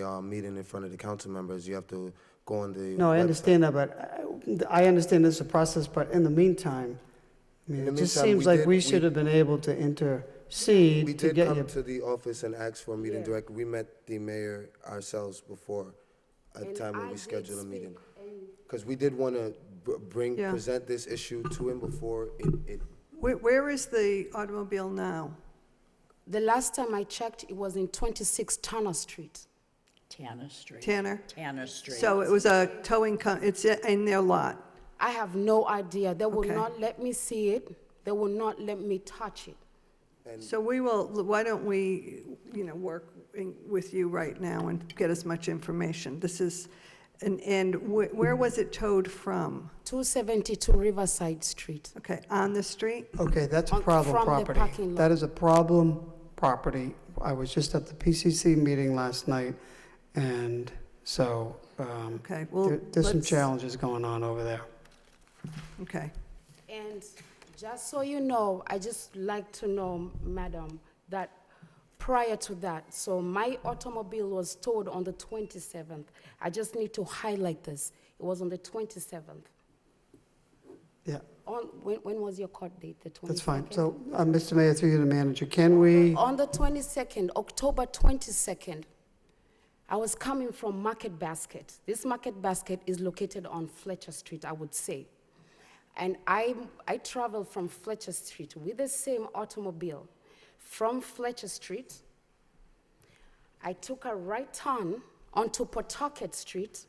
a uh, meeting in front of the council members, you have to go on the. No, I web- understand that, but uh, I I understand this is a process, but in the meantime, I In mean, the it just meantime, we seems like did- we we- should have been able to We intercede to did get you. come to the office and ask for a meeting Yeah. directly. We met the mayor ourselves before a And time when I we did scheduled a meeting. speak, and Because we did want to bring, Yeah. present this issue to him before it, it, Where, where is the automobile now? The last time I checked, it was in 26 Turner Street. Tanner Street. Tanner? Tanner Street. So it was a towing co, it's in their lot? I have no idea. They will Okay. not let me see it. They will not let me touch it. So we will, why don't we, you know, work in- with you right now and get as much information? This is, and, and wh- where was it towed from? 272 Riverside Street. Okay, on the street? Okay, that's a On- problem from the property. parking lot. That is a problem property. I was just at the PCC meeting last night, and so, um, Okay, well, there- there's some let's- challenges going on over there. Okay, And just so you know, I just like to know, madam, that prior to that, so my automobile was towed on the 27th. I just need to highlight this. It was on the 27th. Yeah, On, when, when was your court date? The 22nd? that's fine. So, uh, Mr. Mayor, through you to the manager, can we, On the 22nd, October 22nd, I was coming from Market Basket. This Market Basket is located on Fletcher Street, I would say. And I, I traveled from Fletcher Street with the same automobile. From Fletcher Street, I took a right turn onto Pawtucket Street.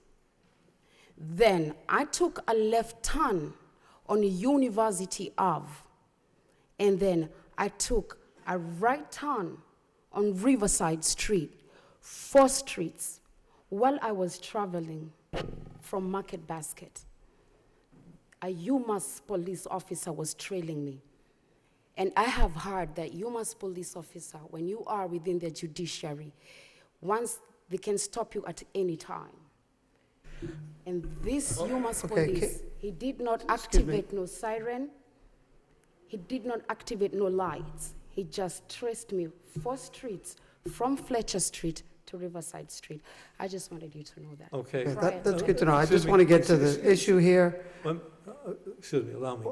Then I took a left turn on University Ave. And then I took a right turn on Riverside Street, four streets, while I was traveling from Market Basket. A UMass police officer was trailing me. And I have heard that UMass police officer, when you are within the judiciary, once they can stop you at any time. And this UMass Oh, Okay, ca- police, he did not Excuse me. activate no siren. He did not activate no lights. He just traced me four streets from Fletcher Street to Riverside Street. I just wanted you to know that. Yeah, Okay, that- that's Uh, good to know. I excuse just me. want to get to the issue here. Lem- uh, excuse me, allow me.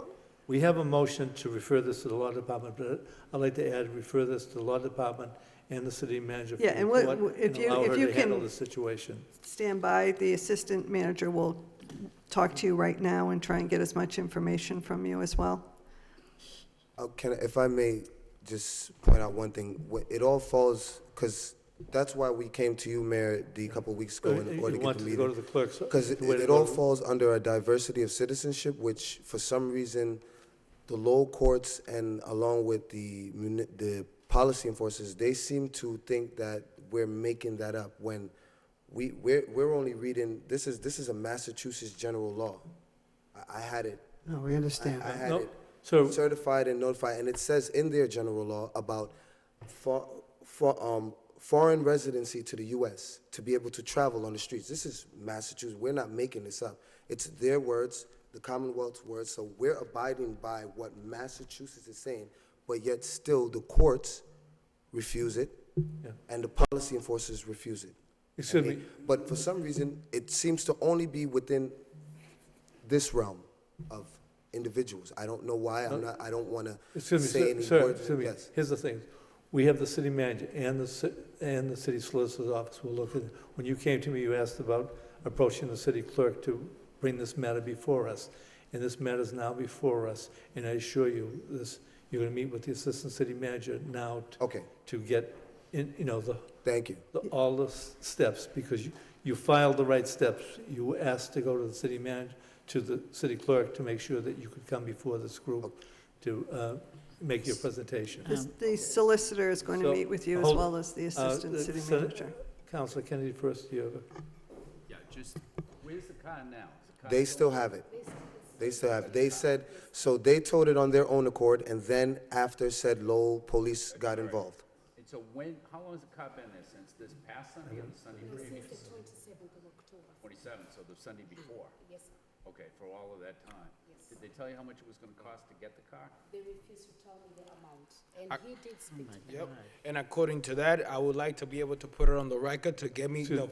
We have a motion to refer this to the law department, but I'd like to add, refer this to the law department and the city manager for Yeah, and what- report if and you- allow if her you to handle can- the situation. stand by, the assistant manager will talk to you right now and try and get as much information from you as well. Uh, Can, I- if I may just point out one thing, Wh- it all falls, because that's why we came to you, Mayor, the couple weeks ago Uh, You in order to get want the to go to meeting. the clerk's. Because it, the way to it go all to- falls under a diversity of citizenship, which for some reason, the low courts and along with the muni, the policy enforcers, they seem to think that we're making that up when we, we're, we're only reading, this is, this is a Massachusetts general law. I, I had it, No, we understand. I had No, it So, certified and notified, and it says in their general law about for, for, um, foreign residency to the U.S. to be able to travel on the streets. This is Massachusetts. We're not making this up. It's their words, the Commonwealth's words. So we're abiding by what Massachusetts is saying, but yet still the courts refuse it, Yeah. and the policy enforcers refuse it. excuse me, But for some reason, it seems to only be within this realm of individuals. I don't know why, I'm not, I don't want to excuse me, say sir- any sir, words. excuse me. Yes. Here's the thing. We have the city manager and the, ci- and the city solicitor's office will look at, it. when you came to me, you asked about approaching the city clerk to bring this matter before us. And this matter is now before us, and I assure you, this, you're gonna meet with the assistant city manager now t- Okay, to get, in, you know, the, thank you. the- all the s- steps, because you, you filed the right steps. You were asked to go to the city manager, to the city clerk to make sure that you could come before this group to uh, make your presentation. This- The solicitor is going to So, meet with you as hold- well as the assistant uh, city so- manager. Counselor Kennedy, first, you have, a- Yeah, just, where's the car now? Is the car They still- still have it. They still have, it. they said, so they told it on their own accord, and then after said Lowell police got involved. And so when, how long has the car been there? Since this past Sunday or the Sunday previous? Since the 27th of October. Twenty-seven, so the Sunday before. Yes, sir. Okay, for all of that time? Did they tell you how much it was gonna cost to get the car? They refused to tell me the amount, and he did speak to me. Yep, and according to that, I would like to be able to put it on the record to get me the